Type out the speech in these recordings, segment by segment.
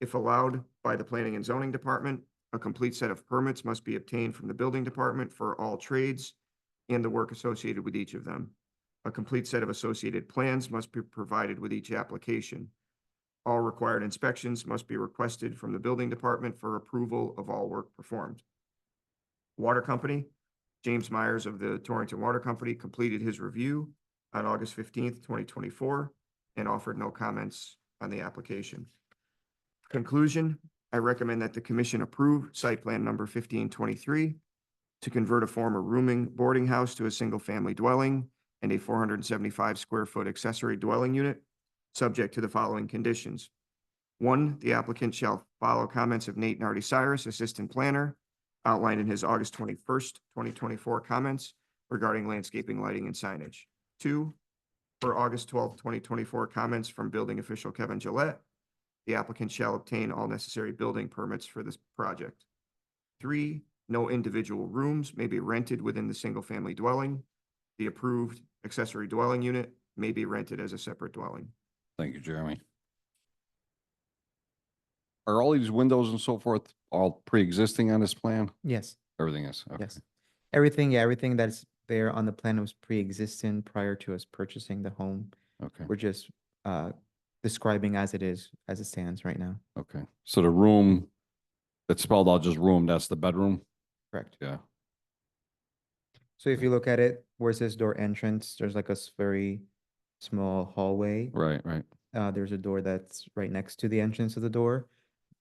if allowed by the Planning and Zoning Department. A complete set of permits must be obtained from the Building Department for all trades and the work associated with each of them. A complete set of associated plans must be provided with each application. All required inspections must be requested from the Building Department for approval of all work performed. Water Company, James Myers of the Torrington Water Company completed his review on August fifteenth, twenty twenty-four, and offered no comments on the application. Conclusion, I recommend that the commission approve site plan number fifteen twenty-three to convert a former rooming boarding house to a single-family dwelling and a four hundred and seventy-five square foot accessory dwelling unit, subject to the following conditions. One, the applicant shall follow comments of Nate Nardi Cyrus, Assistant Planner, outlined in his August twenty-first, twenty twenty-four comments regarding landscaping, lighting, and signage. Two, for August twelfth, twenty twenty-four comments from building official Kevin Gillette, the applicant shall obtain all necessary building permits for this project. Three, no individual rooms may be rented within the single-family dwelling. The approved accessory dwelling unit may be rented as a separate dwelling. Thank you, Jeremy. Are all these windows and so forth all pre-existing on this plan? Yes, Everything is? okay. yes. Everything, yeah, everything that's there on the plan was pre-existing prior to us purchasing the home. Okay, We're just uh describing as it is, as it stands right now, okay. So the room that's spelled out just room, that's the bedroom? correct? Yeah, So if you look at it, where's this door entrance? There's like a s- very small hallway. right, right. Uh, there's a door that's right next to the entrance of the door.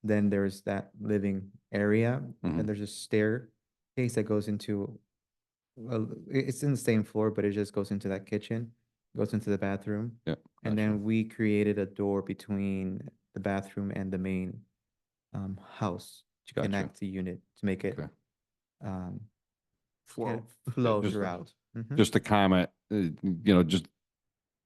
Then there's that living area, Mhm. and there's a staircase that goes into, well, i- it's in the same floor, but it just goes into that kitchen, goes into the bathroom. Yep, And gotcha. then we created a door between the bathroom and the main um house to Gotcha. connect the unit to make it Okay. um Flow. flow Just- throughout. Mhm. Just a comment, uh, you know, just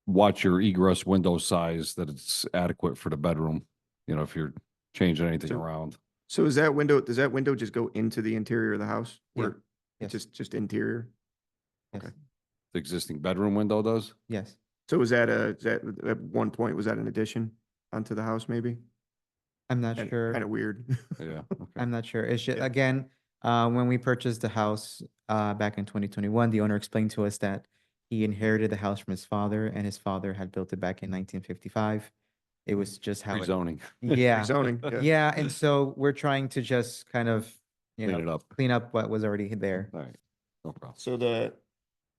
watch your egress window size that it's adequate for the bedroom. You know, if you're changing anything So- around. So is that window, does that window just go into the interior of the house? Yeah. Where, Yes. just, just interior? Yes. okay. The existing bedroom window does? Yes, So was that a, is that, at one point, was that an addition onto the house maybe? I'm not sure. Kind of weird. Yeah, okay, I'm not sure. It's just, Yeah. again, uh, when we purchased the house, uh, back in twenty twenty-one, the owner explained to us that he inherited the house from his father and his father had built it back in nineteen fifty-five. It was just how, it- rezoning. yeah, Zoning, yeah. yeah. And so we're trying to just kind of, you Clean know, it up. clean up what was already there. All right, no problem. So the,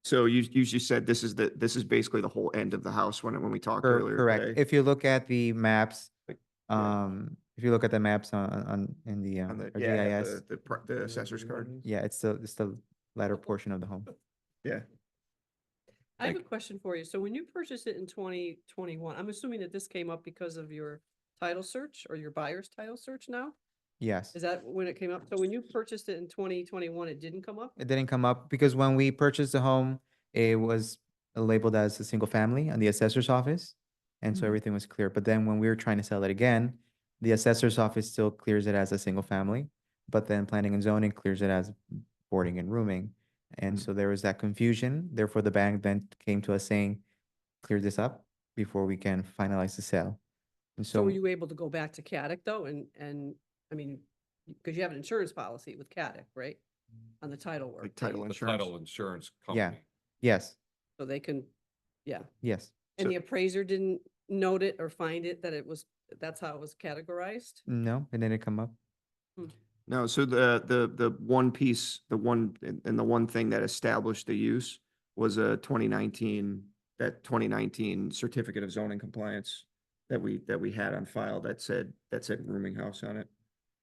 so you, you just said this is the, this is basically the whole end of the house when, when we talked Cor- earlier. Correct. today. If you look at the maps, Like, yeah. um, if you look at the maps on, on, in the, On um, the, our yeah, yeah, GIS, the- the, pro- the assessor's card. yeah, it's the, it's the latter portion of the home. I have a Thank- question for you. So when you purchased it in twenty twenty-one, I'm assuming that this came up because of your title search or your buyer's title search now? Yes. Is that when it came up? So when you purchased it in twenty twenty-one, it didn't come up? It didn't come up because when we purchased the home, it was labeled as a single family on the assessor's office. And so Mhm. everything was clear. But then when we were trying to sell it again, the assessor's office still clears it as a single family. But then planning and zoning clears it as boarding and rooming. And so there was that confusion. Therefore, the bank then came to us saying, clear this up before we can finalize the sale. And So so, were you able to go back to Caddick though? And, and, I mean, because you have an insurance policy with Caddick, right? On the title work. Like that you- title The insurance. title insurance Yeah. company. yes, So they can, yeah. yes. So- And the appraiser didn't note it or find it, that it was, that's how it was categorized? No, it didn't come up. No, so the, the, the one piece, the one, and and the one thing that established the use was a twenty nineteen, that twenty nineteen certificate of zoning compliance that we, that we had on file that said, that said rooming house on it.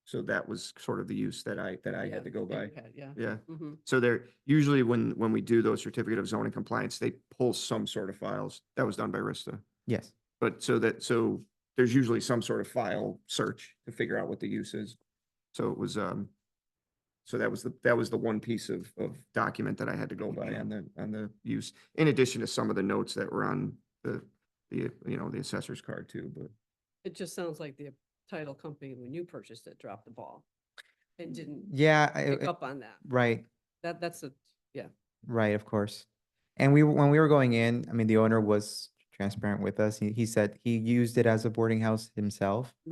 So that was sort of the use that I, that I Yeah, had to go that by. you had, Yeah. Yeah. Mhm. So there, usually when, when we do those certificate of zoning compliance, they pull some sort of files. That was done by Rista. Yes. But so that, so there's usually some sort of file search to figure out what the use is. So it was, um, so that was the, that was the one piece of, of document that I had to go by on the, on the use. In addition to some of the notes that were on the, the, you know, the assessor's card too, but. It just sounds like the title company, when you purchased it, dropped the ball and didn't Yeah. I- pick I- up on that. Right. That, that's a, Right, of course. And we, were- when we were going in, I mean, the owner was transparent with us. He, he said he used it as a boarding house himself.